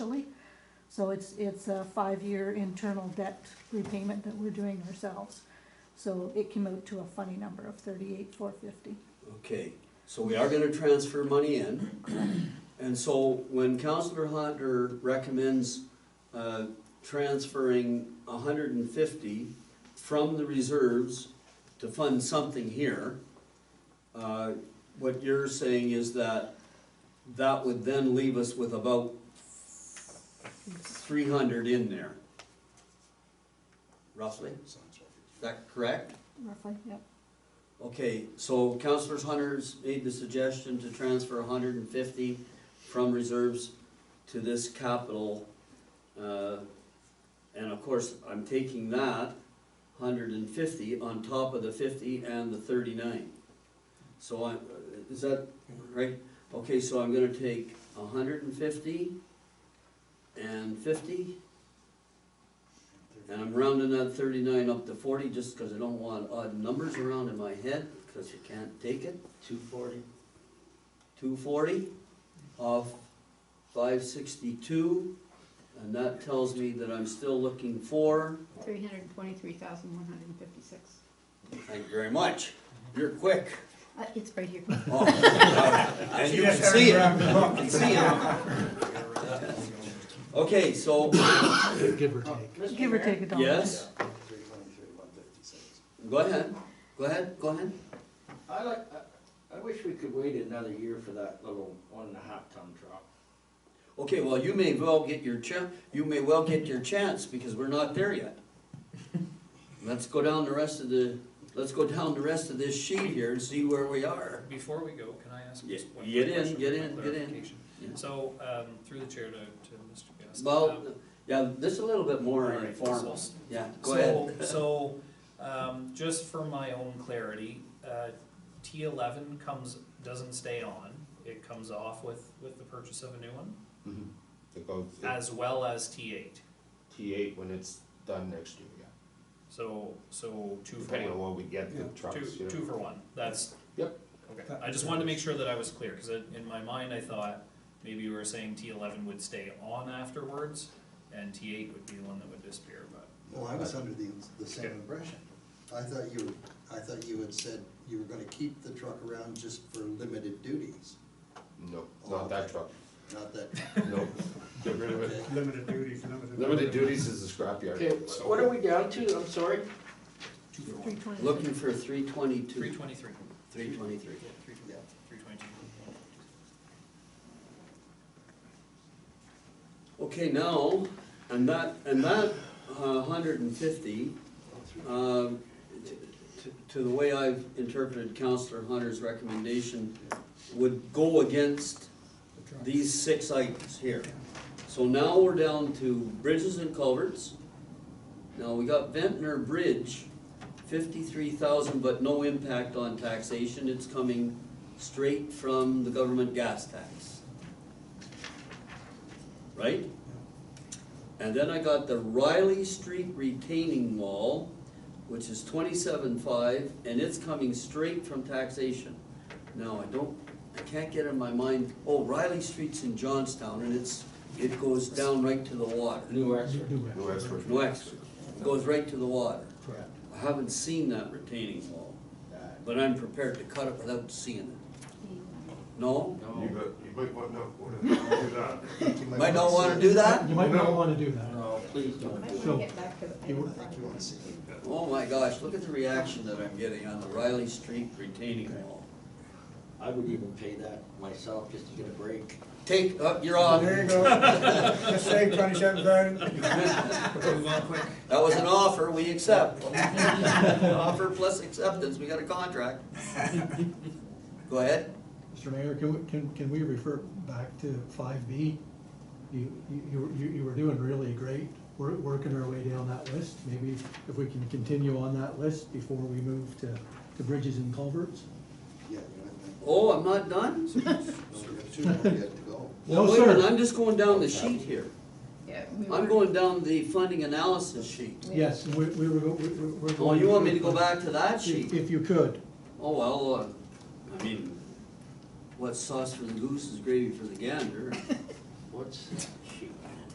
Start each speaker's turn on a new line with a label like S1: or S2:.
S1: So it's, it's a five-year internal debt repayment that we're doing ourselves. So it came out to a funny number of thirty-eight, four fifty.
S2: Okay, so we are gonna transfer money in. And so when Councillor Hunter recommends, uh, transferring hundred and fifty from the reserves to fund something here, uh, what you're saying is that that would then leave us with about three hundred in there. Roughly, is that correct?
S1: Roughly, yep.
S2: Okay, so councilors Hunter's made the suggestion to transfer hundred and fifty from reserves to this capital. uh, And of course, I'm taking that hundred and fifty on top of the fifty and the thirty-nine. So I, is that right? Okay, so I'm gonna take hundred and fifty and fifty. And I'm rounding that thirty-nine up to forty, just because I don't want odd numbers around in my head, because you can't take it.
S3: Two forty.
S2: Two forty off five sixty-two, and that tells me that I'm still looking for,
S4: Three hundred and twenty-three thousand, one hundred and fifty-six.
S2: thank you very much, you're quick.
S4: Uh, it's right here.
S2: Oh, And you can see it, you can see it. Okay, so,
S5: Give or take.
S1: Give or take a dollar.
S2: yes, go ahead, go ahead, go ahead.
S3: I like, I, I wish we could wait another year for that little one and a half ton truck.
S2: Okay, well, you may well get your cha, you may well get your chance, because we're not there yet. Let's go down the rest of the, let's go down the rest of this sheet here and see where we are.
S6: Before we go, can I ask
S2: Ye-
S6: just one
S2: get
S6: quick
S2: in,
S6: question?
S2: get
S6: for
S2: in, get in.
S6: clarification?
S2: Yeah.
S6: So, um, through the chair to, to Mr. Gaston.
S2: Well,
S6: um,
S2: yeah, this is a little bit more
S6: All right,
S2: informal,
S6: so-
S2: yeah, go ahead.
S6: So, so, um, just for my own clarity, uh, T eleven comes, doesn't stay on, it comes off with, with the purchase of a new one,
S7: Mm-hmm. It goes
S6: as well as T eight,
S7: T eight when it's done next year, yeah.
S6: so, so two for
S7: Depending on
S6: one.
S7: what we get the trucks,
S6: Two,
S7: you
S6: two
S7: know.
S6: for one, that's.
S7: Yep.
S6: Okay, I just wanted to make sure that I was clear, cause in in my mind, I thought maybe you were saying T eleven would stay on afterwards, and T eight would be the one that would disappear, but.
S8: Well, I was under the, the same impression. I thought you, were- I thought you had said you were gonna keep the truck around just for limited duties,
S7: No, not that truck,
S8: not that,
S7: no, get rid of it.
S5: Limited duties, limited.
S7: Limited duties is a scrapyard.
S3: Okay,
S7: so-
S3: what are we down to? I'm sorry.
S6: Two for
S1: Three
S6: one.
S1: twenty.
S2: Looking for three
S6: Three
S2: twenty-two,
S6: twenty-three.
S2: three twenty-three.
S6: Yeah, three,
S8: yeah.
S6: three twenty-two.
S2: Okay, now, and that, and that, uh, hundred and fifty, um, t- t- to the way I've interpreted Counselor Hunter's recommendation, would go against these six items here. So now we're down to bridges and culverts. Now, we got Ventnor Bridge, fifty-three thousand, but no impact on taxation, it's coming straight from the government gas tax. Right? And then I got the Riley Street retaining wall, which is twenty-seven five, and it's coming straight from taxation. Now, I don't, I can't get in my mind, oh, Riley Street's in Johnstown, and it's, it goes down right to the water.
S3: New Exford.
S7: No extra.
S2: No extra, It goes right to the water.
S5: Correct.
S2: I haven't seen that retaining wall, but I'm prepared to cut it without seeing it. No?
S3: No.
S7: you might want to do that.
S8: you might.
S2: Might not
S8: wanna
S2: wanna
S8: see
S2: do
S8: it.
S2: that?
S5: You might not wanna do that.
S3: No, please
S4: I
S3: don't.
S4: wanna
S5: So-
S4: get back to the.
S8: I don't think you wanna see it.
S2: Oh my gosh, look at the reaction that I'm getting on the Riley Street retaining wall.
S3: I would even pay that myself just to get a break.
S2: Take, up, you're on.
S9: There you go. Just say twenty-seven thousand.
S6: Move on quick.
S2: That was an offer, we accept. Offer plus acceptance, we got a contract. Go ahead.
S5: Mr. Mayor, can, we- can, can we refer back to five B? You, you, you you were doing really great, we're working our way down that list. Maybe if we can continue on that list before we move to, to bridges and culverts?
S8: Yeah, you
S2: Oh, I'm not done? Oh,
S8: might, no, we have two more yet to go.
S5: No,
S2: Wait a minute,
S5: sir.
S2: I'm just going down the sheet here.
S4: Yeah, we
S2: I'm
S4: were-
S2: going down the funding analysis sheet.
S5: Yes, we, we were, go- we- we- we're.
S2: Oh,
S5: going
S2: you want me to go
S5: through-
S2: back to that
S5: If,
S2: sheet?
S5: if you could,
S2: Oh, well, uh, I mean, what's sauce for the goose is gravy for the gander.
S3: What's that sheet?